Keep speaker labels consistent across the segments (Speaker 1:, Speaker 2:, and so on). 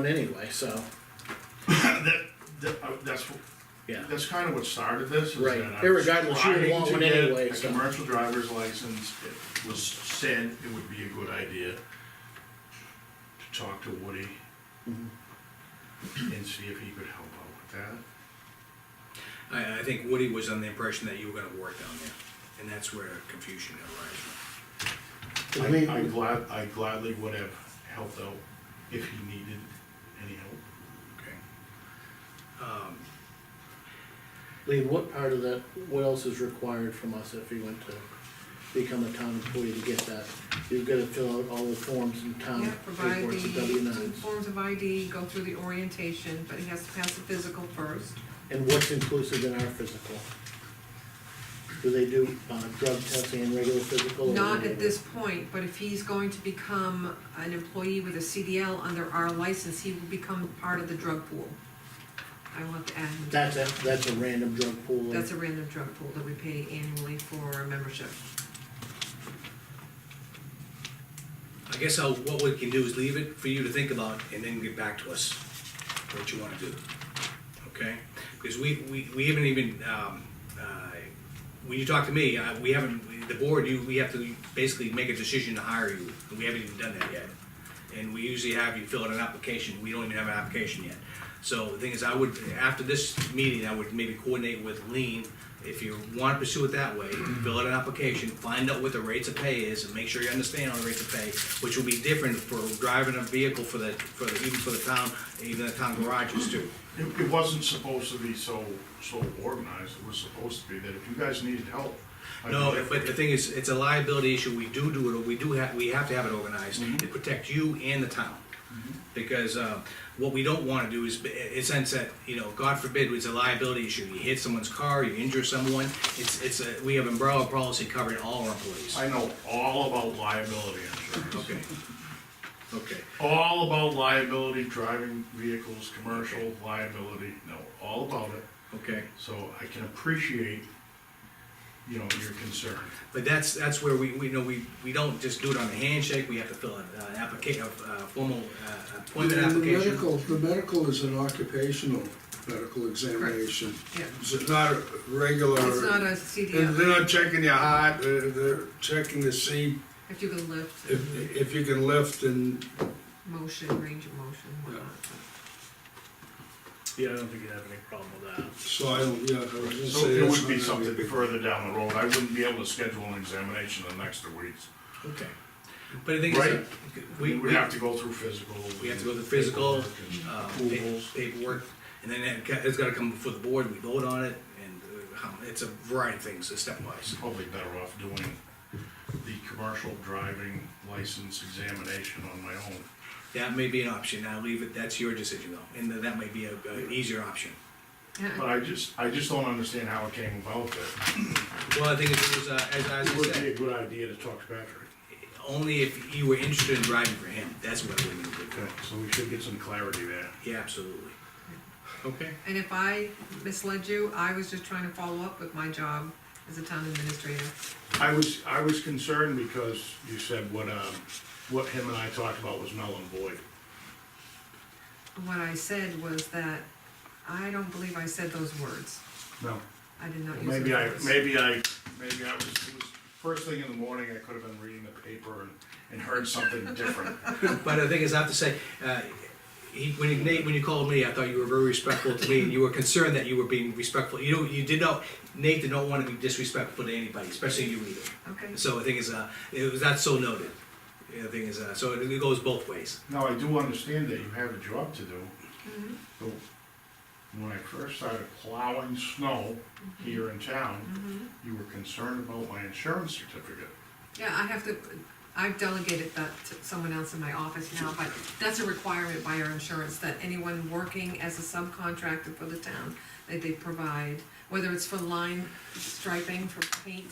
Speaker 1: anyway, so,
Speaker 2: That, that, uh, that's,
Speaker 1: yeah.
Speaker 2: that's kind of what started this. is
Speaker 1: Right.
Speaker 2: that I was
Speaker 1: Irregardless, you would
Speaker 2: trying
Speaker 1: want
Speaker 2: to
Speaker 1: one
Speaker 2: get
Speaker 1: anyway,
Speaker 2: A
Speaker 1: so.
Speaker 2: commercial driver's license, it was said it would be a good idea to talk to Woody
Speaker 1: Mm-hmm.
Speaker 2: and see if he could help out with that.
Speaker 3: I, I think Woody was on the impression that you were gonna work down there, and that's where confusion arises from.
Speaker 1: I mean,
Speaker 2: I, I glad, I gladly would have helped out if he needed any help.
Speaker 3: Okay.
Speaker 1: Lee, what part of that, what else is required from us if you went to become a town employee to get that? You've gotta fill out all the forms in town,
Speaker 4: Yeah, provide
Speaker 1: reports and W
Speaker 4: the
Speaker 1: nines,
Speaker 4: forms of ID, go through the orientation, but he has to pass the physical first.
Speaker 1: and what's inclusive in our physical? Do they do, uh, drug testing and regular physical? or
Speaker 4: Not
Speaker 1: whatever?
Speaker 4: at this point, but if he's going to become an employee with a CDL under our license, he will become part of the drug pool. I want to add, him.
Speaker 1: That's a, that's a random drug pool.
Speaker 4: that's a random drug pool that we pay annually for our membership.
Speaker 3: I guess I'll, what we can do is leave it for you to think about and then get back to us, what you wanna do. Okay? Because we, we, we haven't even, um, uh, when you talk to me, uh, we haven't, the board, you, we have to basically make a decision to hire you, and we haven't even done that yet. And we usually have you fill out an application, we don't even have an application yet. So the thing is, I would, after this meeting, I would maybe coordinate with Lean, if you wanna pursue it that way, fill out an application, find out what the rates of pay is, and make sure you understand all the rates of pay, which will be different for driving a vehicle for the, for the, even for the town, even the town garages too.
Speaker 2: It, it wasn't supposed to be so, so organized, it was supposed to be that if you guys needed help. I'd be
Speaker 3: No,
Speaker 2: there for
Speaker 3: but the
Speaker 2: you.
Speaker 3: thing is, it's a liability issue, we do do it, we do have, we have to have it organized
Speaker 1: Mm-hmm.
Speaker 3: to protect you and the town. Because, uh, what we don't wanna do is, in a sense that, you know, God forbid, it's a liability issue, you hit someone's car, you injure someone, it's, it's a, we have umbrella policy covering all our employees.
Speaker 2: I know all about liability insurance.
Speaker 3: Okay. Okay,
Speaker 2: All about liability, driving vehicles, commercial liability, know all about it,
Speaker 3: okay,
Speaker 2: so I can appreciate, you know, your concern.
Speaker 3: but that's, that's where we, we know, we, we don't just do it on a handshake, we have to fill out an applica, a, a formal, uh, appointment
Speaker 5: The
Speaker 3: application.
Speaker 5: medical- The medical is an occupational medical examination.
Speaker 4: Yeah.
Speaker 5: It's not a regular.
Speaker 4: It's not a
Speaker 5: They're
Speaker 4: CDL,
Speaker 5: not checking your heart, they're, they're checking to see
Speaker 4: if you can lift,
Speaker 5: if, if you can lift and,
Speaker 4: motion, range of motion, whatnot.
Speaker 1: Yeah, I don't think you'd have any problem with that.
Speaker 5: so I, don't- yeah. I was gonna
Speaker 2: So
Speaker 5: say
Speaker 2: it
Speaker 5: that's
Speaker 2: would be
Speaker 5: not gonna
Speaker 2: something further down the road, I wouldn't be able to schedule an examination in the next two weeks.
Speaker 3: Okay, but the thing is,
Speaker 2: Right.
Speaker 3: we,
Speaker 2: We'd have to go through physical.
Speaker 3: We have to go to the physical, uh,
Speaker 2: paperwork and
Speaker 3: pa-
Speaker 2: Approvals.
Speaker 3: paperwork, and then it ca- it's gotta come before the board, we vote on it, and uh, how- it's a variety of things, it's stepwise.
Speaker 2: Probably better off doing the commercial driving license examination on my own.
Speaker 3: That may be an option, I'll leave it, that's your decision though, and that might be a, an easier option.
Speaker 2: But I just, I just don't understand how it came about that.
Speaker 3: Well, I think it was, uh, as, as
Speaker 2: It
Speaker 3: I
Speaker 2: would be a
Speaker 3: said,
Speaker 2: good idea to talk to Patrick.
Speaker 3: only if you were interested in driving for him, that's what it would be good
Speaker 2: Okay,
Speaker 3: for.
Speaker 2: so we should get some clarity there.
Speaker 3: Yeah, absolutely. Okay,
Speaker 4: And if I misled you, I was just trying to follow up with my job as a town administrator.
Speaker 2: I was, I was concerned because you said what, um, what him and I talked about was null and void.
Speaker 4: What I said was that, I don't believe I said those words.
Speaker 2: No.
Speaker 4: I did not use those words.
Speaker 2: Maybe I, maybe I, maybe I was, it was first thing in the morning, I could have been reading the paper and, and heard something different.
Speaker 3: but the thing is, I have to say, uh, he, when you- Nate, when you called me, I thought you were very respectful to me, and you were concerned that you were being respectful. You know, you did not, Nate did not want to be disrespectful to anybody, especially you either.
Speaker 4: Okay.
Speaker 3: So the thing is, uh, it was not so noted. The thing is, uh, so it, it goes both ways.
Speaker 2: Now, I do understand that you have a job to do.
Speaker 4: Mm-hmm.
Speaker 2: But when I first started plowing snow
Speaker 4: Mm-hmm.
Speaker 2: here in town, you were concerned about my insurance certificate.
Speaker 4: Yeah, I have to, I've delegated that to someone else in my office now, but that's a requirement by our insurance, that anyone working as a subcontractor for the town, that they provide, whether it's for line striping, for paint,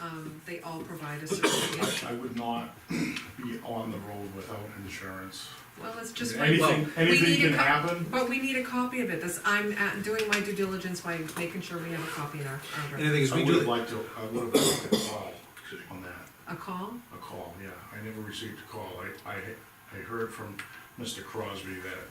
Speaker 4: um, they all provide a certificate.
Speaker 2: I would not be on the road without insurance.
Speaker 4: Well, it's just. like-
Speaker 2: Anything,
Speaker 4: We
Speaker 2: anything
Speaker 4: need a
Speaker 2: can
Speaker 4: co-
Speaker 2: happen.
Speaker 4: But we need a copy of it, that's, I'm uh, doing my due diligence by making sure we have a copy in our, our
Speaker 3: And the thing is,
Speaker 2: I
Speaker 3: we
Speaker 2: would have
Speaker 3: do.
Speaker 2: liked to, I would have liked a call on that,
Speaker 4: A call?
Speaker 2: a call, yeah. I never received a call. I, I, I heard from Mr. Crosby that